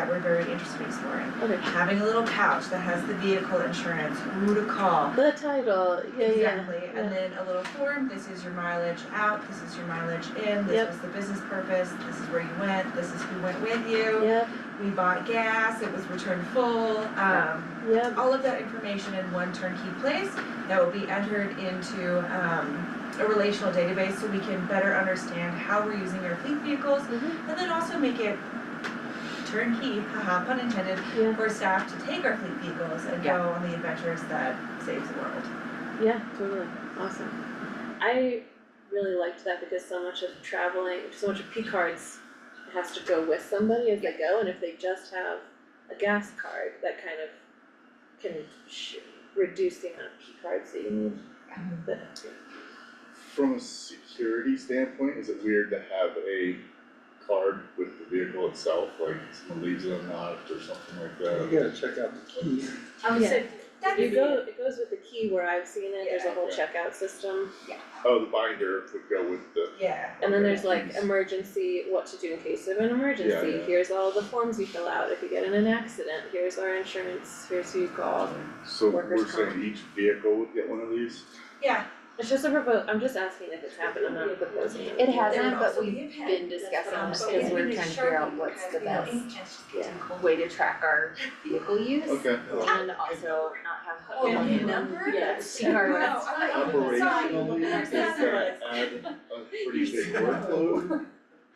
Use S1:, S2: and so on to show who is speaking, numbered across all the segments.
S1: that we're very interested in exploring.
S2: Okay.
S1: Having a little pouch that has the vehicle insurance, who to call.
S2: The title, yeah, yeah.
S1: Exactly,
S2: yeah.
S1: and then a little form, this is your mileage out, this is your mileage in,
S2: Yep.
S1: this was the business purpose, this is where you went, this is who went with you.
S2: Yep,
S1: We bought gas, it was returned full, um,
S2: yep,
S1: all of that information in one turnkey place that will be entered into um a relational database so we can better understand how we're using our fleet vehicles
S2: Mhm.
S1: and then also make it turnkey, haha, pun intended,
S2: yeah,
S1: for staff to take our fleet vehicles and go on the adventures that saves the world.
S2: yeah, totally, awesome. I really liked that because so much of traveling, so much of P cards has to go with somebody as they go, and if they just have a gas card, that kind of can sh- reduce the amount of P cards that you need. But-
S3: From a security standpoint, is it weird to have a card with the vehicle itself, like someone leaves it unlocked or something like that?
S4: You gotta check out the key.
S5: I would
S2: Yeah.
S5: say,
S1: That's
S2: You go, it goes with the key where I've seen it, there's a
S1: Yeah.
S2: whole checkout system,
S3: Oh, the binder would go with the,
S1: yeah.
S2: and then
S3: Okay,
S2: there's like
S3: geez.
S2: emergency, what to do in case of an emergency,
S3: yeah.
S2: here's all the forms you fill out if you get in an accident, here's our insurance, here's who you call.
S3: so we're
S2: Workers' comp.
S3: saying each vehicle would get one of these?
S1: Yeah,
S2: It's just a propo, I'm just asking if it's happened, I'm not proposing.
S6: It has.
S1: there
S6: Hasn't,
S1: would
S6: but
S1: also
S6: we've
S1: be a pen.
S6: been discussing
S1: Um,
S6: this
S1: but
S6: because
S1: we
S6: we're
S1: need
S6: trying to
S1: sharpen
S6: figure
S1: it
S6: out what's
S1: because,
S6: the
S1: you know,
S6: best,
S1: ink just-
S6: yeah, way to track our vehicle use.
S3: Okay.
S6: And also not have.
S1: Oh,
S6: one
S1: and the
S6: who-
S1: number?
S6: Yeah, see our
S1: Wow,
S6: list.
S1: I thought you were- sorry.
S3: Operationally, does that
S1: Sorry.
S3: add a pretty big workload?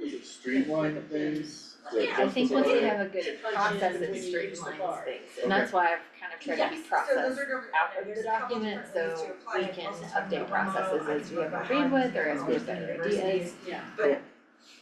S3: Does it streamline things? Does that
S1: Yeah,
S6: I think once we
S3: justify it?
S6: have a good process, it streamlines things, and that's why I've kind of tried to be
S1: Yes, so those
S6: processed
S1: are different-
S6: out
S1: yeah,
S6: of
S1: there's
S6: the
S1: a couple
S6: document,
S1: different ways
S6: so
S1: to apply
S6: we
S1: it.
S6: can
S1: Also, I'm
S6: update
S1: not a model,
S6: processes
S1: I
S6: as
S1: can
S6: we
S1: do
S6: have
S1: it
S6: agreed
S1: behind
S6: with, or
S1: the
S6: as we
S1: scenes
S6: have better
S1: at universities.
S6: ideas.
S5: yeah,
S1: But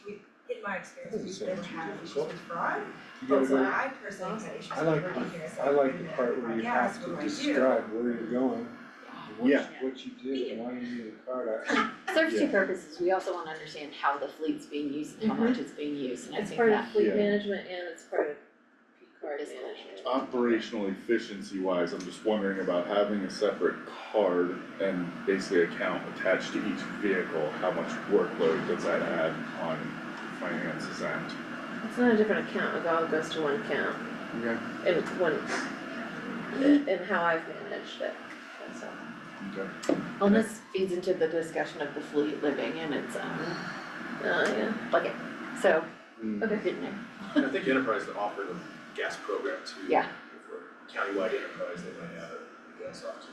S1: we, in my experience, we didn't have issues with fraud,
S4: You
S1: but
S4: gotta
S1: what
S4: go,
S1: I personally had issues
S4: I
S1: with
S4: like
S1: working here is
S4: I like the part where you
S1: Yes,
S4: have
S1: what do
S4: to
S1: I do?
S4: describe where you're going, and what,
S3: Yeah.
S4: you- what you did, and why you need a card. I-
S6: Serves two
S3: Yeah.
S6: purposes, we also wanna understand how the fleet's being used and how
S1: Mm-hmm.
S2: Mhm.
S6: much it's being used, and I
S2: It's
S6: think
S2: part of
S6: that,
S2: fleet
S3: Yeah.
S2: management and it's part of P card
S6: Business
S2: management.
S3: Um, Operational efficiency wise, I'm just wondering about having a separate card and basically account attached to each vehicle, how much workload does that add on finances end?
S2: It's not a different account, it all goes to one account
S3: Okay.
S2: and one,
S6: Mm-hmm.
S2: and how I've managed it, that's all.
S3: Okay.
S6: well, and this feeds into the discussion of the fleet living in its um, own
S2: Oh, yeah,
S6: bucket, so,
S3: Mm.
S6: okay, good name.
S7: I think enterprise to offer the gas program to.
S6: Yeah.
S7: For countywide enterprise, they might have a gas officer.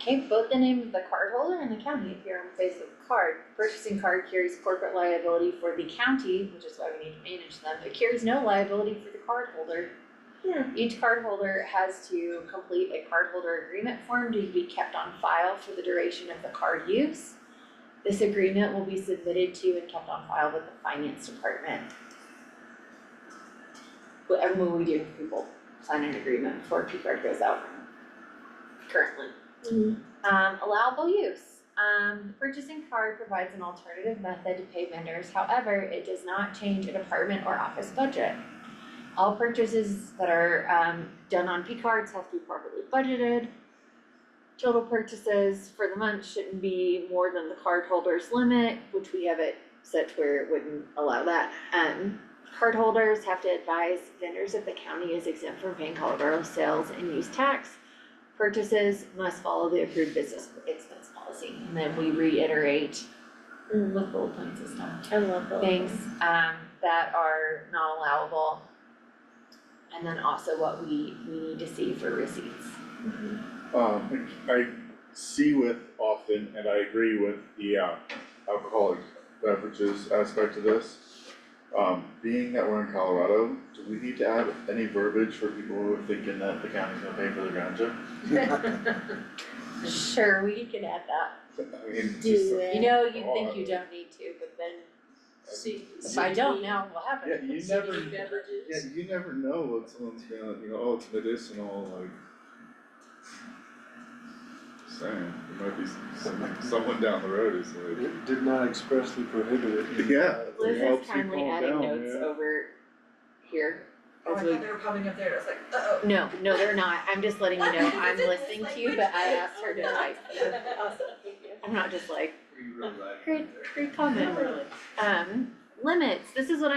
S6: Okay, vote the name of the cardholder and the county appear on the face of the card. Purchasing card carries corporate liability for the county, which is why we need to manage them, but carries no liability for the cardholder.
S2: Yeah.
S6: Each cardholder has to complete a cardholder agreement form to be kept on file for the duration of the card use. This agreement will be submitted to and kept on file with the finance department. Whatever we do, people sign an agreement before P card goes out. Currently.
S2: Mhm.
S6: Um, allowable use. Um, the purchasing card provides an alternative method to pay vendors, however, it does not change a department or office budget. All purchases that are, um, done on P cards have to be properly budgeted. Total purchases for the month shouldn't be more than the cardholder's limit, which we have it set where it wouldn't allow that. Um, cardholders have to advise vendors if the county is exempt from paying Colorado sales and use tax purchases must follow the approved business expense policy. And then we reiterate
S2: Mm,
S6: with bullet points and stuff,
S2: I love that.
S6: things um that are not allowable. And then also what we we need to see for receipts.
S3: Um, I see with often, and I agree with the uh, alcoholic beverages aspect of this. Um, being that we're in Colorado, do we need to add any verbiage for people who are thinking that the county's gonna pay for the ground jump?
S6: Sure, we can add that.
S3: I mean, just,
S2: Do it.
S6: You know, you think you don't need to, but then if I don't now, what
S3: yeah,
S6: happens?
S3: you never, yeah, you never know what someone's gonna, you know, oh, it's medicinal, like. Saying, there might be some, someone down the road is like,
S4: It did not expressly prohibit it. in,
S3: Yeah.
S4: uh, the
S3: Liz
S6: Liz
S3: is helps
S6: is
S3: you kindly
S6: kindly
S3: calm adding
S6: adding
S3: down,
S6: notes
S3: notes yeah.
S6: over here
S1: Oh, I thought they were popping up there, I was like, uh-oh.
S6: No, no, they're not. I'm just letting you know, I'm
S1: It's
S6: listening
S1: like,
S6: to you,
S1: which
S6: but I
S1: one?
S6: asked her to type.
S2: Awesome, thank you.
S6: I'm not just like, uh,
S7: Are you really glad?
S6: great, great comment. Um, limits, this is what I'm